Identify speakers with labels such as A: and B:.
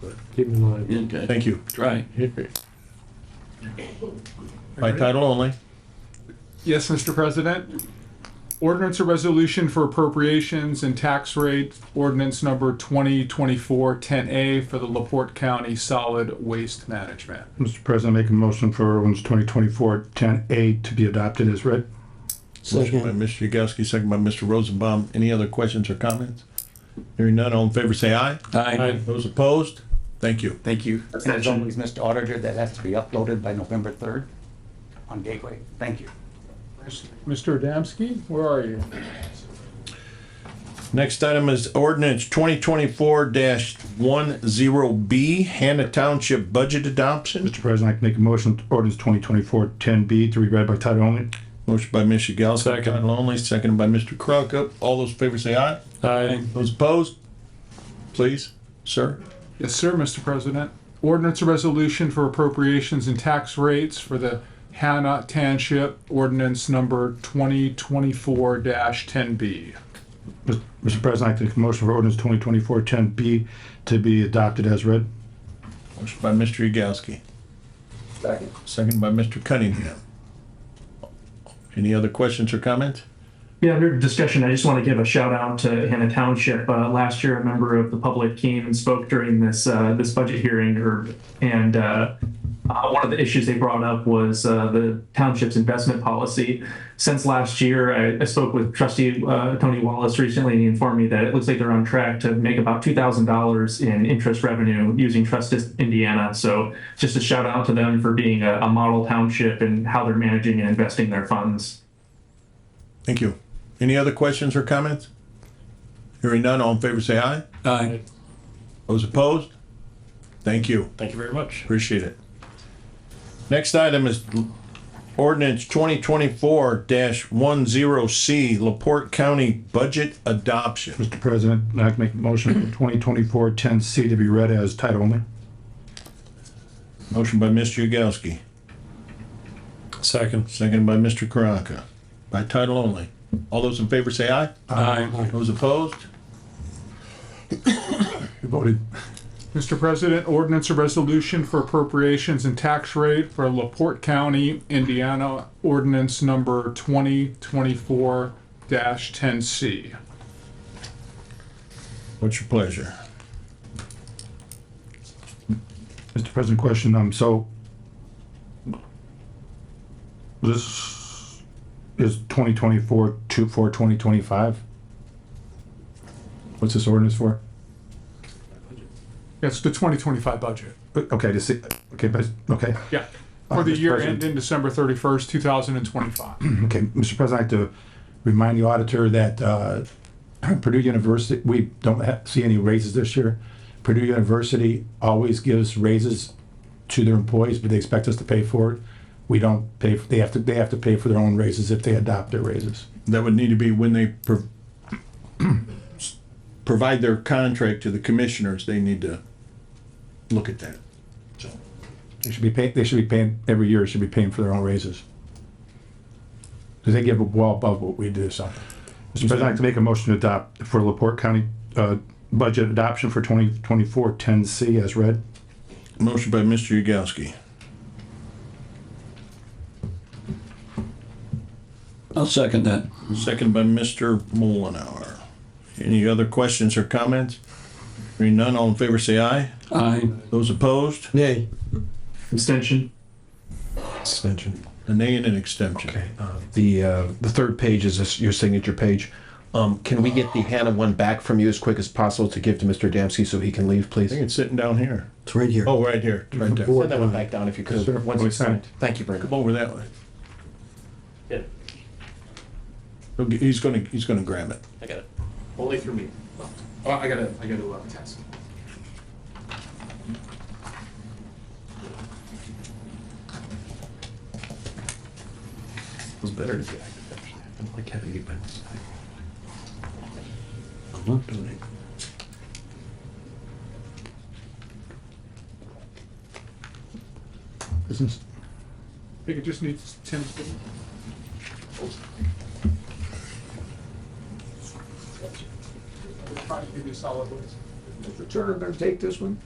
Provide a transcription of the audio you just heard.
A: but
B: Keep in mind.
C: Okay,
D: Thank you.
C: try.
D: By title only.
E: Yes, Mr. President. Ordinance or resolution for appropriations and tax rate, ordinance number 2024-10A for the LaPorte County Solid Waste Management.
F: Mr. President, make a motion for ordinance 2024-10A to be adopted as read.
D: Motion by
A: second,
D: Mr. Yagowski, second by Mr. Rosenbaum. Any other questions or comments? Hearing none, all in favor say aye.
C: Aye.
D: Those opposed? Thank you.
G: Thank you. And as always, Mr. Auditor, that has to be uploaded by November 3rd on Gateway. Thank you.
E: Mr. Adamski, where are you?
D: Next item is ordinance twenty twenty-four one zero B, Hannah Township Budget Adoption.
F: Mr. President, I can make a motion to ordinance 2024-10B to be read by title only.
D: Motion by Mr. Yagowski.
B: Second.
D: Title only, seconded by Mr. Crockup. All those in favor say aye.
B: Aye.
D: Those opposed? Please, sir.
E: Yes, sir, Mr. President. Ordinance or resolution for appropriations and tax rates for the Hannah Township Ordinance Number 2024-10B.
F: Mr. President, I can make a motion for ordinance 2024-10B to be adopted as read.
D: Motion by Mr. Yagowski.
G: Second.
D: Second by Mr. Cunningham. Any other questions or comments?
H: Yeah, under discussion, I just want to give a shout out to Hannah Township. Uh, last year, a member of the public came and spoke during this uh, this budget hearing, or, and uh, uh, one of the issues they brought up was uh, the township's investment policy. Since last year, I, I spoke with Trustee uh, Tony Wallace recently, and he informed me that it looks like they're on track to make about two thousand dollars in interest revenue using Trustis Indiana. So, just a shout out to them for being a, a model township and how they're managing and investing their funds.
D: Thank you. Any other questions or comments? Hearing none, all in favor say aye.
C: Aye.
D: Those opposed? Thank you.
B: Thank you very much.
D: Appreciate it. Next item is ordinance twenty twenty-four one zero C, Laporte County Budget Adoption.
F: Mr. President, I can make a motion for 2024-10C to be read as title only.
D: Motion by Mr. Yagowski,
B: Second.
D: seconded by Mr. Karanka. By title only. All those in favor say aye.
C: Aye.
D: Those opposed?
F: You voted.
E: Mr. President, ordinance or resolution for appropriations and tax rate for LaPorte County, Indiana, ordinance number 2024-10C.
D: What's your pleasure?
F: Mr. President, question, um, so this is 2024 to, for 2025? What's this ordinance for?
E: That's the 2025 budget.
F: But, Okay, to see, okay, but, okay,
E: Yeah. For the
F: Mr.
E: year
F: President.
E: ending December 31st, 2025.
F: okay, Mr. President, I have to remind the auditor that, uh, Purdue University, we don't ha see any raises this year. Purdue University always gives raises to their employees, but they expect us to pay for it. We don't pay, they have to, they have to pay for their own raises if they adopt their raises.
D: That would need to be when they pro- provide their contract to the commissioners, they need to look at that.
F: They should be paying, they should be paying, every year should be paying for their own raises. Because they give well above what we do, so. Mr. President, I'd like to make a motion to adopt for Laporte County, uh, budget adoption for 2024-10 C as read.
D: Motion by Mr. Yagowski.
C: I'll second that.
D: Second by Mr. Mullenhour. Any other questions or comments? Hearing none, all in favor say aye.
C: Aye.
D: Those opposed,
A: nay,
H: Abstention?
I: extension.
D: a nay and an extension.
I: Uh, The, uh, the third page is this- your signature page. Um, can we get the Hannah one back from you as quick as possible to give to Mr. Dembski so he can leave, please?
D: I think it's sitting down here.
A: it's right here.
D: Oh, right here, it's right there.
I: Send that one back down if you could.
F: Sure.
I: Once it's signed. Thank you, Brandon.
D: Come over that way. He'll get- He's gonna, he's gonna grab it.
I: I got it. Only through me. Oh, I gotta, I gotta, uh, task. It was better to be active, actually. I don't like having it by my side.
C: I'm not doing it.
E: I think it just needs Tim's. Trying to give you solid waste.
G: Mr. Turner, better take this one.